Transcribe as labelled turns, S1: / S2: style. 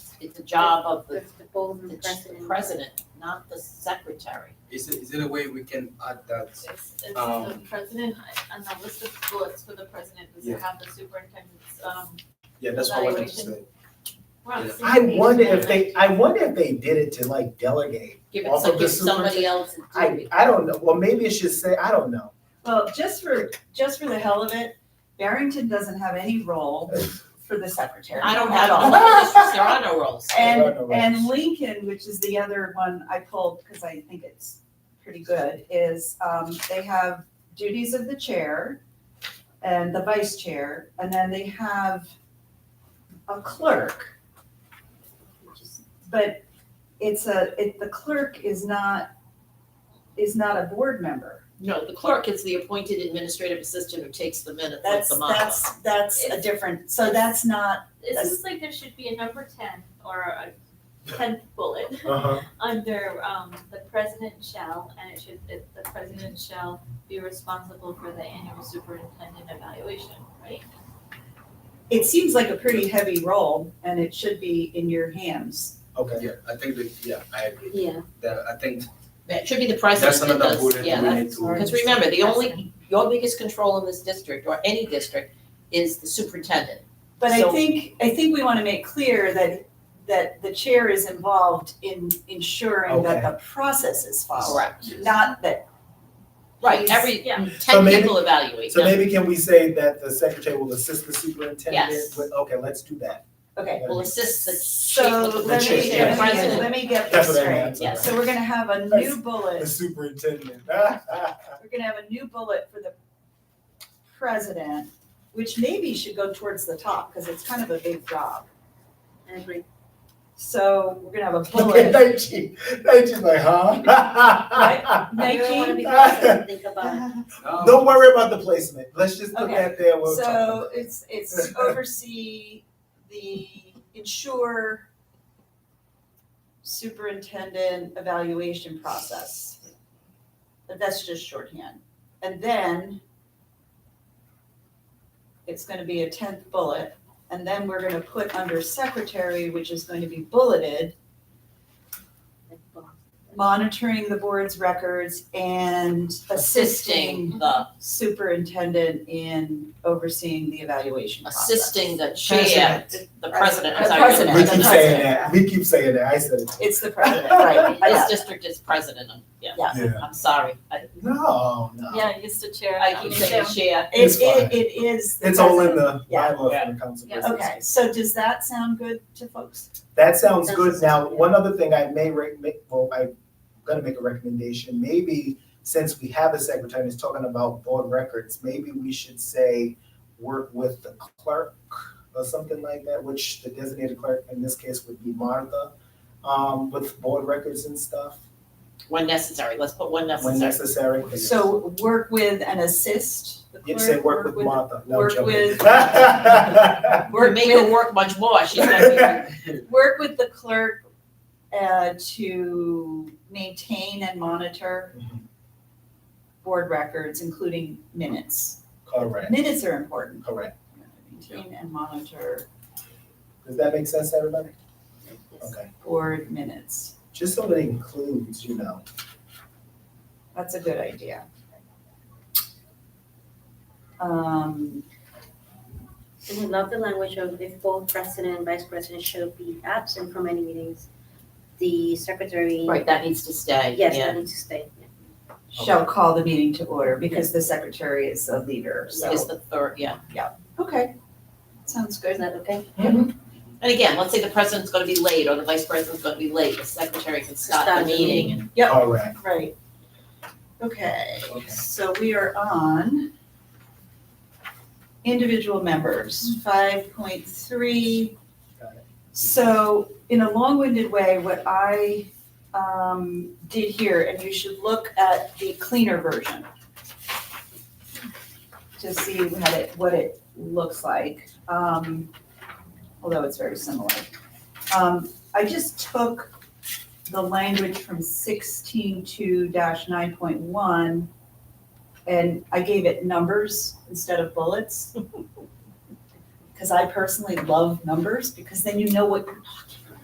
S1: it's a job of the,
S2: That's the ballroom
S1: the
S2: president.
S1: president, not the secretary.
S3: Is it, is it a way we can add that?
S4: It's, it's the
S3: Um,
S4: president, I- on the list of bullets for the president, is to
S3: Yeah.
S4: have the superintendent's, um,
S3: Yeah, that's what I wanted to say.
S4: we're on the
S3: Yeah.
S4: same
S5: I
S4: page
S5: wonder
S4: there.
S5: if they, I wonder if they did it to like delegate.
S1: Give it,
S5: Off
S1: some-
S5: of the
S1: give somebody else and do
S5: I,
S1: it.
S5: I don't know, well, maybe it should say, I don't know.
S6: Well, just for, just for the hell of it, Barrington doesn't have any role for the secretary
S1: I don't
S6: at
S1: have
S6: all.
S1: all the districts, there are no roles.
S6: And,
S5: There are no
S6: and
S5: roles.
S6: Lincoln, which is the other one I pulled because I think it's pretty good, is, um, they have duties of the chair and the vice chair, and then they have a clerk. But it's a, it, the clerk is not, is not a board member.
S1: No, the clerk is the appointed administrative assistant who takes the minutes like
S6: That's,
S1: the mama.
S6: that's, that's a different, so that's not,
S4: It seems like there should be a number ten or a tenth bullet
S5: Uh-huh.
S4: under, um, the president shall, and it should, it, the president shall be responsible for the annual superintendent evaluation, right?
S6: it seems like a pretty heavy role, and it should be in your hands.
S5: Okay,
S3: Yeah, I think that, yeah, I agree.
S2: Yeah,
S3: That, I think
S1: That should be the
S3: that's
S1: president that
S3: another
S1: does,
S3: bullet
S1: yeah,
S3: we
S1: that-
S3: need to.
S1: Because remember, the only, your biggest control in this district, or any district, is the superintendent.
S6: But I
S1: So-
S6: think, I think we want to make clear that, that the chair is involved in ensuring that the process is followed.
S1: Correct.
S6: Not that,
S1: Right,
S6: He's-
S1: every,
S4: Yeah.
S5: So
S1: ten
S5: maybe-
S1: people evaluate
S5: so
S1: them.
S5: maybe can we say that the secretary will assist the superintendent
S1: Yes.
S5: with, okay, let's do that.
S6: okay.
S1: Will assist the chief
S6: So
S1: of the
S6: let
S5: chief,
S6: me,
S5: yeah.
S6: let me,
S1: president.
S6: let me get
S5: That's
S6: this
S5: what I meant.
S6: straight.
S5: I'm
S1: Yes.
S5: sorry.
S6: So we're gonna have a new
S5: That's-
S6: bullet.
S5: The superintendent.
S6: we're gonna have a new bullet for the president, which maybe should go towards the top, because it's kind of a big job.
S2: I agree.
S6: So we're gonna have a bullet.
S5: Thank you, thank you, like, huh?
S2: I really wanna
S6: Nike,
S2: be president, think about it.
S3: No,
S5: Don't worry about the placement, let's just put
S6: Okay.
S5: that there, we'll talk
S6: so
S5: about it.
S6: it's, it's oversee the ensure superintendent evaluation process. But that's just shorthand. And then it's gonna be a tenth bullet, and then we're gonna put under secretary, which is going to be bulleted, monitoring the board's records and assisting
S1: assisting the,
S6: superintendent in overseeing the evaluation process.
S1: assisting the chair, the president, I'm
S6: The
S1: sorry.
S6: president,
S5: We
S6: the
S5: keep
S6: president.
S5: saying that, we keep saying that, I said it.
S6: It's the president, right, I
S1: This
S6: got it.
S1: district is president, I'm- yeah,
S6: Yeah.
S5: Yeah.
S1: I'm sorry, I,
S5: No, no.
S4: Yeah, it's the chair.
S1: I keep saying chair,
S5: It's
S6: It,
S5: fine.
S6: it, it is. the
S5: It's all in
S6: president.
S5: the
S6: Yeah.
S5: bylaw from the council.
S4: Yeah.
S5: business.
S6: Okay, so does that sound good to folks?
S5: That sounds
S2: That's
S5: good.
S2: just-
S5: Now, one other thing I may re- make, well, I'm gonna make a recommendation, maybe since we have a secretary that's talking about board records, maybe we should say work with the clerk or something like that, which the designated clerk in this case would be Martha, um, with board records and stuff
S1: when necessary, let's put when
S5: when
S1: necessary.
S5: necessary.
S6: So work with and assist the clerk?
S5: You say work with Martha, no I'm
S6: work
S5: joking.
S6: with-
S1: We
S6: Work
S1: make her
S6: with,
S1: work much more, she's gonna
S6: work with the clerk, uh, to maintain and monitor
S5: Mhm.
S6: board records, including minutes.
S5: Correct,
S6: Minutes are important,
S5: correct.
S6: maintain and monitor
S5: Does that make sense to everybody? Okay,
S6: board minutes.
S5: just so that it includes, you know,
S6: That's a good idea. Um,
S2: And we love the language of if both president and vice president should be absent from any meetings, the secretary.
S1: be, right, that needs to stay,
S2: Yes,
S1: yeah,
S2: that needs to stay.
S6: shall call the meeting to order because the secretary is the leader,
S1: is
S6: so,
S1: the third, yeah.
S6: okay. Sounds
S2: Is
S6: good.
S2: that okay?
S1: And again, let's say the president's gonna be late, or the vice president's gonna be late, the secretary can stop
S2: Stop
S1: the
S2: the
S1: meeting and
S6: Yep.
S5: all right.
S6: Right. Okay,
S5: Okay.
S6: so we are on individual members, five point three.
S5: Got it.
S6: So in a long-winded way, what I um did here, and you should look at the cleaner version to see what it, what it looks like, um, although it's very similar. Um, I just took the language from sixteen two nine point one, and I gave it numbers instead of bullets. Because I personally love numbers, because then you know what you're talking